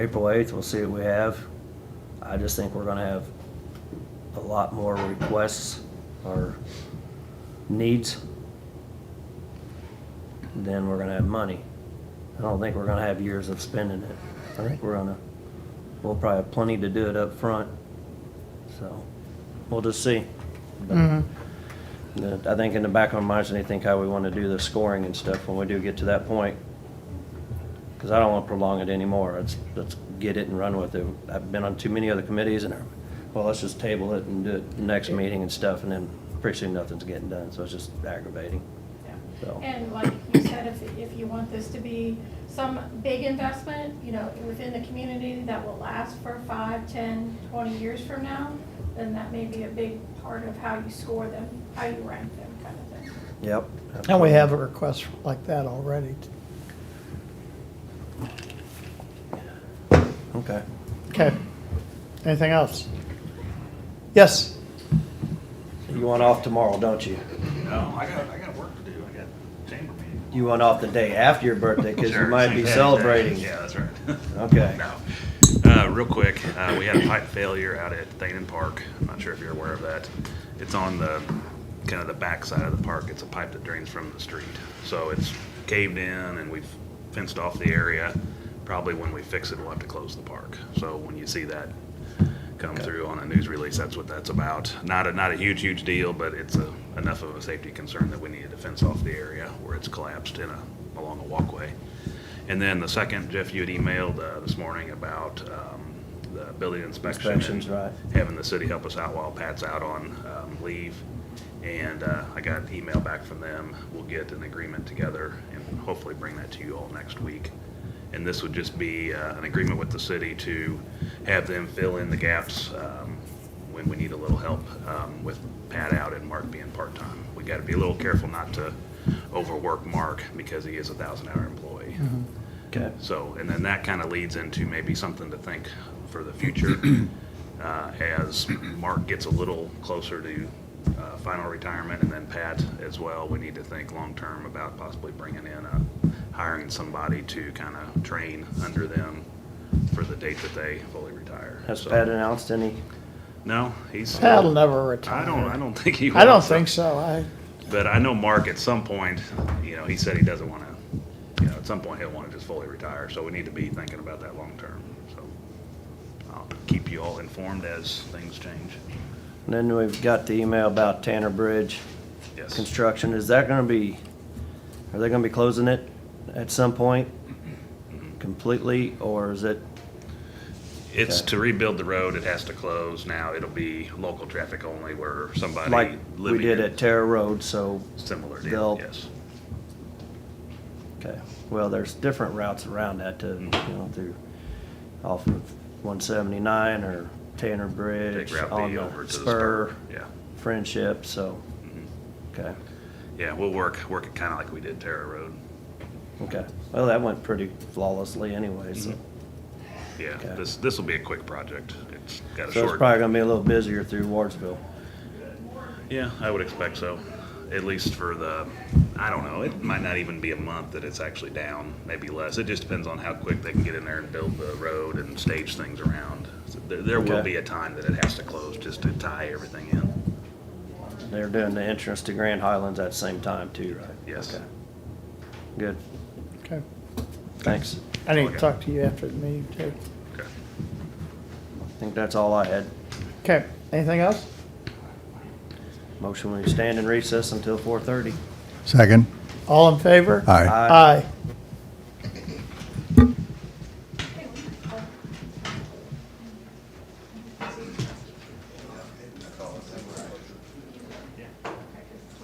April 8th, we'll see what we have. I just think we're going to have a lot more requests or needs than we're going to have money. I don't think we're going to have years of spending it. I think we're going to, we'll probably have plenty to do it up front. So we'll just see. But the- I think in the back of my mind, they think how we want to do the scoring and stuff when we do get to that point. Because I don't want to prolong it anymore. Let's, let's get it and run with it. I've been on too many other committees and, well, let's just table it and do it next meeting and stuff, and then pretty soon nothing's getting done, so it's just aggravating. Yeah. So- And like you said, if, if you want this to be some big investment, you know, within the community that will last for five, ten, twenty years from now, then that may be a big part of how you score them, how you rank them kind of thing. Yep. And we have a request like that already. Okay. Okay. Anything else? Yes, You want off tomorrow, don't you? No, I got, I got work to do. I got chamber meeting. You want off the day after your birthday, because you Sure, might exactly, be exactly. celebrating. Yeah, that's right. Okay. No. Uh, real quick, uh, we had a pipe failure out at Thanen Park. I'm not sure if you're aware of that. It's on the, kind of the backside of the park. It's a pipe that drains from the street. So it's caved in and we've fenced off the area. Probably when we fix it, we'll have to close the park. So when you see that come through on a news release, that's what that's about. Not a, not a huge, huge deal, but it's a, enough of a safety concern that we needed to fence off the area where it's collapsed in a, along a walkway. And then the second, Jeff, you had emailed uh, this morning about um, the building inspection. and Inspections, right. Having the city help us out while Pat's out on um, leave. And uh, I got an email back from them. We'll get an agreement together and hopefully bring that to you all next week. And this would just be uh, an agreement with the city to have them fill in the gaps um, when we need a little help um, with Pat out and Mark being part-time. We got to be a little careful not to overwork Mark because he is a thousand-hour employee. Okay. So, and then that kind of leads into maybe something to think for the future uh, as Mark gets a little closer to uh, final retirement and then Pat as well. We need to think long-term about possibly bringing in, a- hiring somebody to kind of train under them for the date that they fully retire. Has So- Pat announced any? No, he's. Pat'll never I retire. don't, I don't think he will. I don't think so. I, But I know Mark at some point, you know, he said he doesn't want to, you know, at some point he'll want to just fully retire. So we need to be thinking about that long term. So I'll keep you all informed as things change. And then we've got the email about Tanner Bridge Yes. construction. Is that gonna be, are they gonna be closing it at some point completely, or is it, It's to rebuild the road. It has to close now. It'll be local traffic only where somebody like living. we did in- at Terra Road, so Similar deal, they'll- yes. Okay, well, there's different routes around that to, you Mm-hmm. know, through, off of one seventy-nine or Tanner Bridge. Take Route on B the over to the spur. Yeah. Mm-hmm. Friendship, so, okay, Yeah, we'll work, work it kind of like we did Terra Road. okay. Well, that went pretty flawlessly anyway, Mm-hmm. so. Yeah, Okay. this, this will be a quick project. It's got a short. So it's probably gonna be a little busier through Wardsville. Yeah, I would expect so. At least for the, I don't know, it might not even be a month that it's actually down, maybe less. It just depends on how quick they can get in there and build the road and stage things around. So There, there will Okay. be a time that it has to close just to tie everything in. They're doing the entrance to Grand Highlands at the same time too, right? Yes. Okay. Good, okay. thanks. I need to talk to you after the meeting too. Okay. I think that's all I had. Okay, anything else? Motion, we stand in recess until four thirty. Second. All in favor? Aye. Aye.